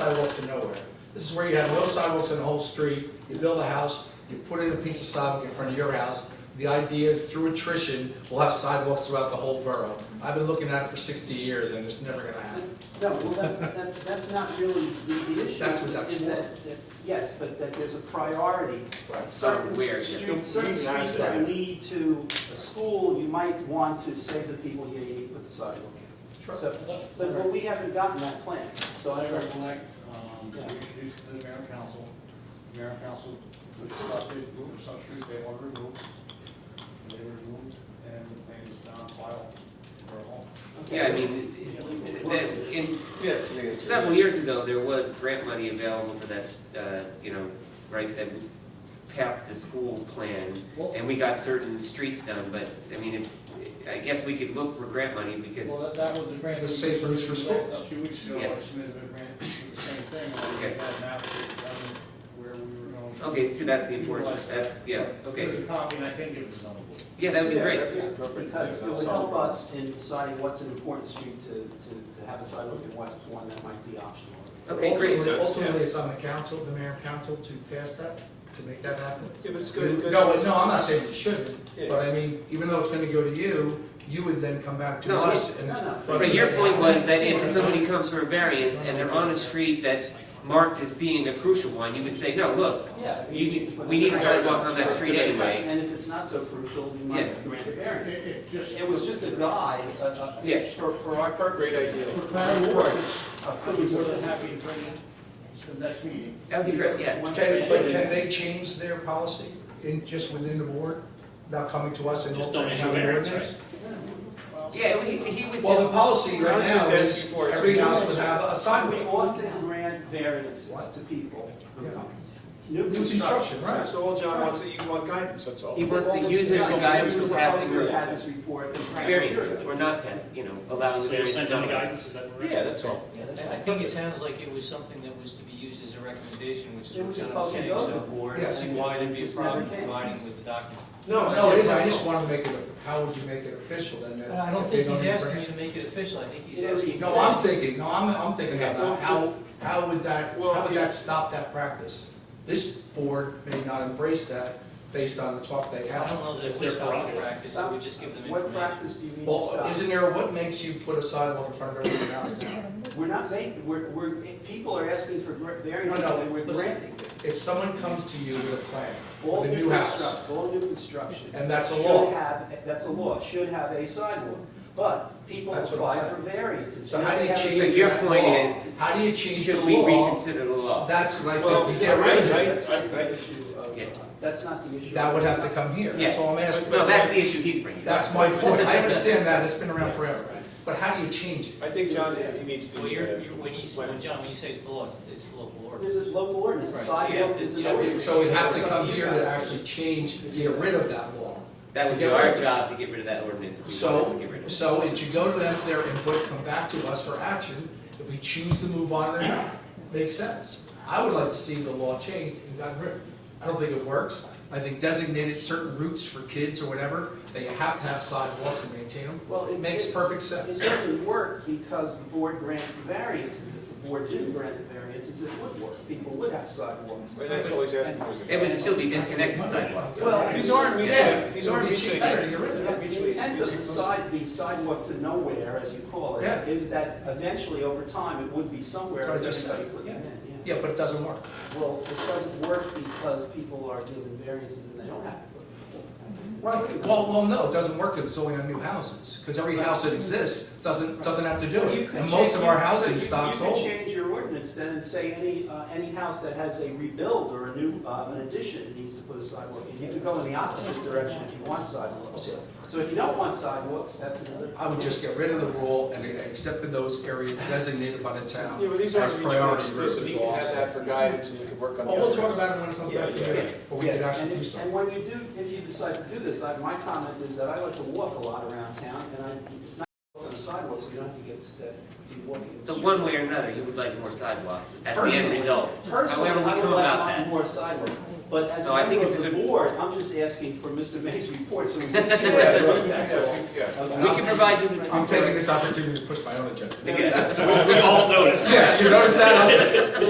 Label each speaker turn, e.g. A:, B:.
A: sidewalks in nowhere. This is where you have no sidewalks in the whole street, you build a house, you put in a piece of sidewalk in front of your house. The idea, through attrition, we'll have sidewalks throughout the whole borough. I've been looking at it for sixty years, and it's never gonna happen.
B: No, well, that- that's, that's not really the the issue.
A: That's what that's
B: is that- that- Yes, but that there's a priority. Certain
C: Of where, yeah.
B: streets, certain
C: Reason I
B: streets
C: said
B: that
C: that.
B: lead to a school, you might want to say to the people, yeah, you need to put the sidewalk in.
A: Sure.
B: So, But but we haven't gotten that plan, so I
D: I
B: don't.
D: recollect, um, we introduced it to the mayor and council. The Mayor and council discussed it, moved some trees they wanted removed. and They were removed, and the thing is now on file for a home.
B: okay.
C: Yeah, I mean, that, in, several years ago, there was grant money available for that, uh, you know, right, that we passed the school plan,
D: Well,
C: and we got certain streets done, but, I mean, if- I guess we could look for grant money, because,
D: well, that, that was the grant.
A: It was safe routes for schools.
D: A few weeks ago,
C: Yeah.
D: I submitted a grant for the same thing, and we
C: Okay.
D: had an application done where we were going.
C: okay, so that's the important, that's, yeah, okay.
D: There's a copy, and I think it was on the board.
C: Yeah, that'd be
B: Yeah,
C: great.
B: yeah, Because it would help us in deciding what's an important street to, to, to have a sidewalk and what's one that might be optional.
C: Okay, great.
A: Ultimately, ultimately, it's on the council, the mayor and council, to pass that, to make that happen.
E: Yeah, but it's good,
A: No,
E: good.
A: no, I'm not saying you shouldn't,
E: Yeah.
A: but I mean, even though it's gonna go to you, you would then come back to
C: No,
A: us and.
B: no, no.
A: for us
C: But
A: to
C: your
A: make
C: point
A: that
C: was that if somebody comes for a variance and they're on a street that's marked as being a crucial one, you would say, no, look,
B: Yeah.
C: you,
B: need to put
C: we need a
B: it-
C: sidewalk on that street anyway.
B: And if it's not so crucial, you
C: Yeah.
B: might grant a
D: It-
B: variance.
D: it just-
B: It was just a guide, uh, uh,
C: Yeah.
B: for, for our purpose.
E: Great idea.
D: For clarity,
B: Uh,
D: I'd
B: could
D: be
B: we
D: more
B: sort
D: than
B: of have-
D: happy to bring it to the next meeting.
C: That'd be great, yeah.
A: Can, but can they change their policy in, just within the board, not coming to us and
F: Just don't
A: altering
F: issue
A: how the
F: variance,
A: ordinance?
C: Yeah, he, he was
A: Well, the
C: just,
A: policy right
E: Alex
A: now
E: just asked
A: is
E: before, it's
A: every
E: a-
A: house would have a
B: We
A: sidewalk.
B: often grant variances
A: What?
B: to people who
A: Yeah.
B: come.
A: New construction, right?
E: So all John wants, is you want guidance, that's all.
C: he wants to use it as a guidance for passing
B: This is
C: roads.
B: how this report. and-
C: variances, or not passing, you know, allowing the
F: So you're
C: variance. to
F: sending the
C: come.
F: guidance, is that correct?
E: Yeah, that's all.
B: Yeah, that's-
G: I think it sounds like it was something that was to be used as a recommendation, which is what John
B: It was
G: was
B: supposed to
G: saying,
B: go
G: so
B: before.
G: I don't see why there'd be a
B: It just never
G: problem
B: came.
G: providing with the document.
A: No, no, it is, I just wanted to make it, how would you make it official then? that
G: Uh, I don't
A: if they
G: think he's
A: even
G: asking
A: bring
G: you to make it official, I think he's
B: Yeah,
G: asking.
A: it-
G: you
A: No,
G: to-
A: I'm thinking, no, I'm, I'm thinking
E: Okay,
A: about
E: well,
A: how, how would that, how
E: Well,
A: would
E: yeah.
A: that stop that practice? This board may not embrace that based on the talk they
G: I don't
A: have.
G: know that
F: It's
G: it
F: their
G: would stop the
F: prerogative.
G: practice, it would just give them
B: What
G: information.
B: practice do you need to
A: Well,
B: stop?
A: isn't there, what makes you put a sidewalk in front of everyone else now?
B: We're not making, we're, we're, people are asking for gra- variances,
A: No, no,
B: and we're
A: listen.
B: granting it.
A: If someone comes to you with a plan,
B: All
A: with a
B: new
A: new house,
B: construction, all new construction.
A: And that's a law.
B: Should have, that's a law, should have a sidewalk, but people
A: That's what
B: apply
A: I'm
B: for
A: saying.
B: variances.
A: so how do you
B: They
A: change
B: have-
A: that
C: So your
A: law?
C: point is,
A: How do you change the
C: Should we
A: law?
C: reconsider the law?
A: That's what I
E: Well,
A: think, to
E: yeah,
A: get rid of
E: right,
A: it,
E: right, right, right.
C: Yeah.
B: That's not the issue.
A: that would have to come here, that's
C: Yes.
A: all I'm asking.
C: No, that's the issue he's bringing. up.
A: That's my point, I understand that, it's been around forever, but how do you change it?
E: I think John, he needs to.
G: Well, you're,
E: uh,
G: you're, when you, when John, when you say it's the law, it's, it's the local
B: There's
G: ordinance.
B: a local ordinance, a
G: Right.
B: sidewalk
C: Yes,
B: is
C: it's-
B: an
C: yeah,
B: ordinance.
A: So we have to
B: It's up
A: come
B: you
A: here
B: guys.
A: to actually change, get rid of that law.
C: That would be our job to get rid of that ordinance if we wanted to
A: So,
C: get rid of it.
A: so it should go to them for their input, come back to us for action, if we choose to move on or not, makes sense. I would like to see the law changed and gotten rid of it. I don't think it works. I think designated certain routes for kids or whatever, that you have to have sidewalks and maintain them,
B: Well,
A: it makes perfect
B: It
A: sense.
B: doesn't work because the board grants the variances. If the board didn't grant the variances, it would work. People would have sidewalks.
E: Well, That's always asking for.
C: It would still be disconnected sidewalks.
B: Well,
E: These aren't
A: Yeah.
E: mutually, these aren't
A: It'll be
E: mutually.
A: cheaper to get rid of it.
B: The
E: mutually
B: intent of the
E: exclusive.
B: side, the sidewalk to nowhere, as you call
A: Yeah.
B: it, is that eventually, over time, it would be somewhere.
A: So I
B: that
A: just-
B: everybody put
A: yeah.
B: it in,
A: Yeah, but it doesn't work.
B: Well, it doesn't work because people are given variances and they don't have to put it.
A: Right, well, well, no, it doesn't work because it's only on new houses, because every house that exists doesn't, doesn't have to do
B: So you
A: it.
B: could
A: And most of
B: change-
A: our
B: so
A: housing
B: you-
A: stock's
B: You
A: old.
B: could change your ordinance then and say any, uh, any house that has a rebuild or a new, uh, an addition needs to put a sidewalk in. You could go in the opposite direction if you want sidewalks. So if you don't want sidewalks, that's another.
A: I would just get rid of the rule and accept in those areas designated by the town
E: Yeah, but these
A: as
E: aren't mutually
A: priority
E: exclusive.
A: groups.
E: You can have that for guidance and we can work on. the
A: Well, we'll
E: other.
A: talk about it when it comes back
E: Yeah, yeah,
A: to
E: yeah.
A: you, but we
B: Yes,
A: could actually
B: and
A: do
B: if-
A: something.
B: And when you do, if you decide to do this, I, my comment is that I like to walk a lot around town, and I, it's not on the sidewalks, so you don't have to get, st- be walking. in the
C: So
B: street.
C: one way or another, he would like more sidewalks as the end
B: Personally-
C: result.
B: Personally, I
C: However, we
B: would
C: come
B: like a
C: about
B: lot
C: that.
B: more sidewalks, but as a
C: No, I think
B: member
C: it's
B: of
C: a
B: the
C: good-
B: board, I'm just asking for Mr. May's report, so we can see that road, that's all.
E: Yeah, yeah.
B: Okay.
C: We can provide you with.
A: I'm taking this opportunity to push my own agenda.
C: Again, we all noticed.
A: Yeah, you notice that?